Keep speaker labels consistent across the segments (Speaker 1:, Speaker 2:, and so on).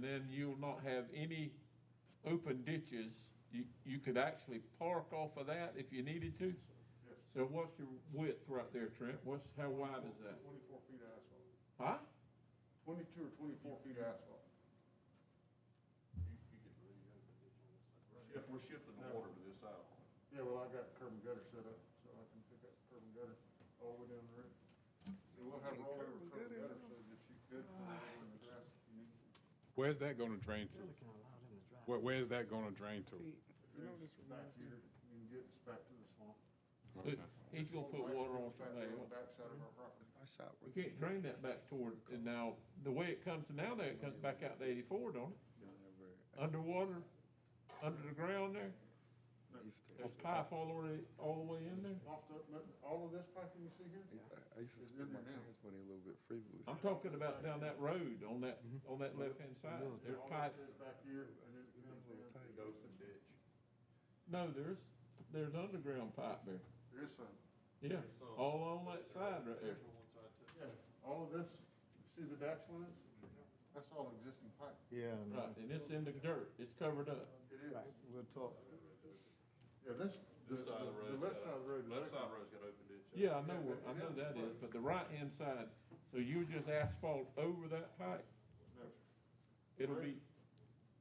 Speaker 1: then you'll not have any open ditches. You, you could actually park off of that if you needed to.
Speaker 2: Yes, sir.
Speaker 1: So what's your width right there, Trent? What's, how wide is that?
Speaker 2: Twenty-four feet of
Speaker 1: Huh?
Speaker 2: asphalt, twenty-two or twenty-four feet of asphalt.
Speaker 3: You, you could really have a ditch on this side. We're shifting, we're shifting the water to this side.
Speaker 2: Yeah, well, I got curb and gutter set up, so I can pick up curb and gutter all the way down the road. And we'll have
Speaker 4: Hey,
Speaker 2: rollover
Speaker 4: curb
Speaker 2: curb and
Speaker 4: and
Speaker 2: gutter,
Speaker 4: gutter
Speaker 2: so
Speaker 4: now.
Speaker 2: that you could, in the grass, if you need to.
Speaker 5: Where's that gonna drain to?
Speaker 4: kind of allowed him to drive.
Speaker 5: Where, where's that gonna drain to?
Speaker 4: See, you know, this
Speaker 2: It's back
Speaker 4: reminds me,
Speaker 2: here, you can get this back to the swamp.
Speaker 5: Okay.
Speaker 1: He's gonna put water on somebody
Speaker 2: On
Speaker 1: else.
Speaker 2: the backside of our property.
Speaker 4: I shot
Speaker 1: We
Speaker 4: with,
Speaker 1: can't drain that back toward, and now, the way it comes now, there it comes back out to eighty-four, don't it?
Speaker 4: whenever
Speaker 1: Uh, Underwater, under the ground there,
Speaker 4: I used to,
Speaker 1: there's pipe all the way, all the way in there.
Speaker 2: Off the- all of this piping you see here?
Speaker 4: I- I used to spend my parents' money a little bit frivolous.
Speaker 1: I'm talking about down that road, on that, on that left-hand side, there's
Speaker 2: All
Speaker 1: pipe.
Speaker 2: this is back here, and
Speaker 4: It's
Speaker 2: it
Speaker 4: been a little
Speaker 2: comes down.
Speaker 4: tight.
Speaker 3: goes to ditch.
Speaker 1: No, there's, there's underground pipe there,
Speaker 2: There is some.
Speaker 1: yeah, all on that side right there.
Speaker 3: There's on one side too.
Speaker 2: Yeah, all of this, you see the dash lines? That's all existing pipe.
Speaker 4: Yeah,
Speaker 1: Right, and it's in the dirt, it's covered up.
Speaker 2: It is.
Speaker 4: we'll talk.
Speaker 2: Yeah, this.
Speaker 3: This side of the road.
Speaker 2: The left side of the road. is
Speaker 3: Left side of
Speaker 2: like-
Speaker 3: the road's got open ditch. on it.
Speaker 1: Yeah, I know, where- I know that is, but the right-hand side, so you just asphalt over that pipe,
Speaker 2: no,
Speaker 1: it'll be,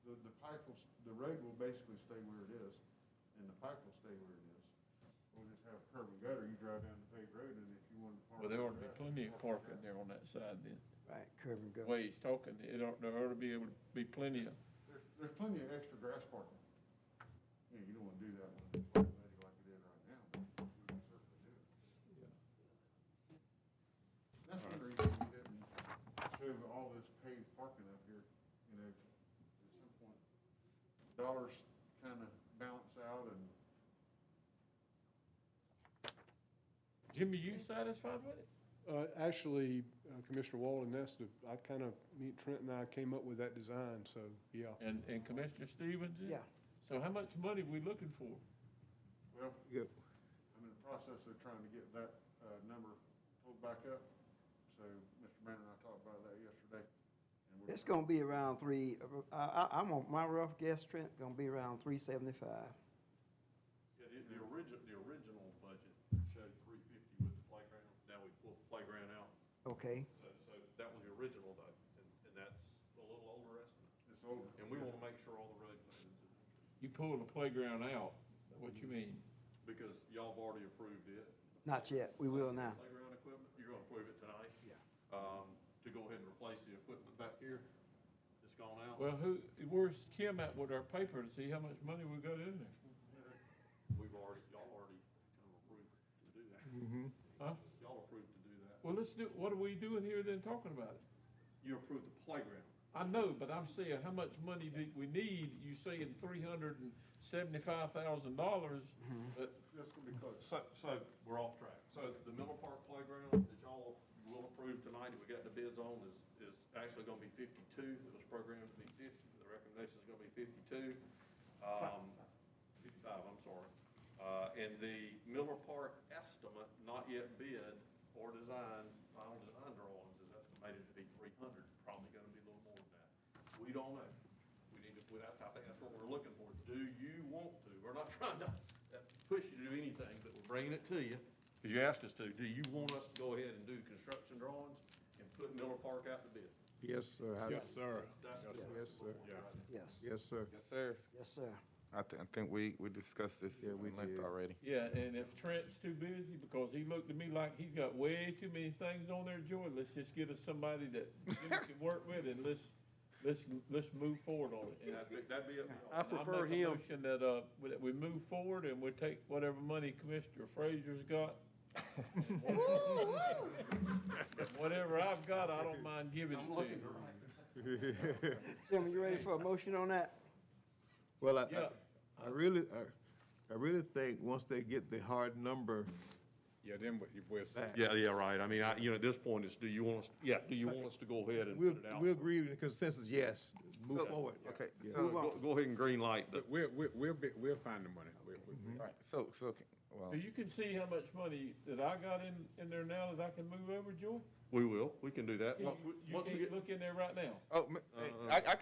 Speaker 2: The, the pipe will, s- the road will basically stay where it is, and the pipe will stay where it is. We'll just have curb and gutter, you drive down the paved road, and if you want to park.
Speaker 1: well, there ought to be
Speaker 2: right,
Speaker 1: plenty of
Speaker 2: park
Speaker 1: parking there on that side then.
Speaker 4: Right, curb and
Speaker 1: The
Speaker 4: gutter.
Speaker 1: way he's talking, it ought, there ought to be able to be plenty of,
Speaker 2: There's, there's plenty of extra grass parking. Yeah, you don't want to do that one, like it is right now, but we can certainly do it. That's one reason we didn't show all this paved parking up here, you know, at some point. Dollars kind of balance out and
Speaker 1: Jimmy, you satisfied with it?
Speaker 6: Uh, Actually, uh, Commissioner Walden, that's the, I kind of, me, Trent and I came up with that design, so, yeah.
Speaker 1: And, and Commissioner Stevens? is?
Speaker 4: Yeah.
Speaker 1: So how much money we looking for?
Speaker 2: Well,
Speaker 4: Good.
Speaker 2: I'm in the process of trying to get that uh, number pulled back up. So Mr. Manning and I talked about that yesterday. and we're-
Speaker 4: It's gonna be around three, I, I, I'm on, my rough guess, Trent, gonna be around three seventy-five.
Speaker 3: Yeah, the, the original, the original budget showed three fifty with the playground. Now we pulled the playground out.
Speaker 4: Okay,
Speaker 3: So, so that was the original though, and, and that's a little older estimate.
Speaker 2: It's over.
Speaker 3: And we want to make sure all the road plans, are-
Speaker 1: You pulling the playground out, what you mean?
Speaker 3: because y'all have already approved it.
Speaker 4: not yet, we will now.
Speaker 3: Playground equipment, you're going to approve it tonight? Yeah. Um, to go ahead and replace the equipment back here that's gone out.
Speaker 1: Well, who, where's Kim at with our paper to see how much money we got in there?
Speaker 3: We've already, y'all already kind of approved to do that.
Speaker 1: Huh?
Speaker 3: Y'all approved to do that.
Speaker 1: Well, let's do, what are we doing here then talking about it?
Speaker 3: You approved the playground.
Speaker 1: I know, but I'm saying, how much money do we need? You saying three hundred and seventy-five thousand dollars, but
Speaker 2: This will be close.
Speaker 3: So, so we're off track. So the Miller Park Playground that y'all will approve tonight, that we got the bids on, is, is actually gonna be fifty-two. It was programmed to be fifty, the recommendation is gonna be fifty-two. Um, fifty-five, I'm sorry. Uh, and the Miller Park estimate, not yet bid or designed, final design drawings, is estimated to be three hundred, probably gonna be a little more than that. We don't know. We need to, that's, I think that's what we're looking for. Do you want to? We're not trying to push you to do anything, but we're bringing it to you, because you asked us to. Do you want us to go ahead and do construction drawings and put Miller Park out to bid?
Speaker 7: Yes, sir.
Speaker 5: Yes, sir.
Speaker 3: That's
Speaker 7: Yes,
Speaker 5: Yes, sir.
Speaker 7: sir.
Speaker 5: Yeah.
Speaker 4: Yes,
Speaker 7: Yes, sir.
Speaker 5: Yes, sir.
Speaker 4: yes, sir.
Speaker 8: I, thi- I think we, we discussed this
Speaker 7: Yeah,
Speaker 8: at
Speaker 7: we
Speaker 8: length
Speaker 7: did.
Speaker 8: already.
Speaker 1: Yeah, and if Trent's too busy, because he looked at me like he's got way too many things on there, Joy, let's just get us somebody that Jimmy can work with and let's, let's, let's move forward on it.
Speaker 3: And
Speaker 1: And
Speaker 3: that'd be, that'd be up
Speaker 1: I
Speaker 3: to y'all.
Speaker 1: prefer him. Motion that, uh, that we move forward and we take whatever money Commissioner Frazier's got. Whatever I've got, I don't mind giving it
Speaker 3: I'm
Speaker 1: to
Speaker 3: looking
Speaker 1: you.
Speaker 3: around.
Speaker 4: Jim, you ready for a motion on that?
Speaker 7: Well, I-
Speaker 1: Yeah.
Speaker 7: I, I really, I, I really think once they get the hard number,
Speaker 5: Yeah, then we- we'll see.
Speaker 7: Back.
Speaker 3: Yeah, yeah, right. I mean, I, you know, at this point, it's, do you want us, yeah, do you want us to go ahead and
Speaker 7: we'll,
Speaker 3: put it out?
Speaker 7: we'll agree with the consensus, yes, move
Speaker 8: So-
Speaker 7: forward.
Speaker 8: Okay,
Speaker 7: Yeah.
Speaker 8: so, all
Speaker 3: Go, go ahead and green light the,
Speaker 5: But we'll, we'll, we'll be, we'll find the money. We- we- we-
Speaker 8: right, so, so, okay,
Speaker 1: So
Speaker 8: well,
Speaker 1: you can see how much money that I got in, in there now that I can move over, Joy?
Speaker 3: we will, we can do that.
Speaker 1: Can
Speaker 3: Once
Speaker 1: You
Speaker 3: we-
Speaker 1: you
Speaker 3: once we
Speaker 1: can't
Speaker 3: get-
Speaker 1: look in there right now.
Speaker 8: oh, ma- I, I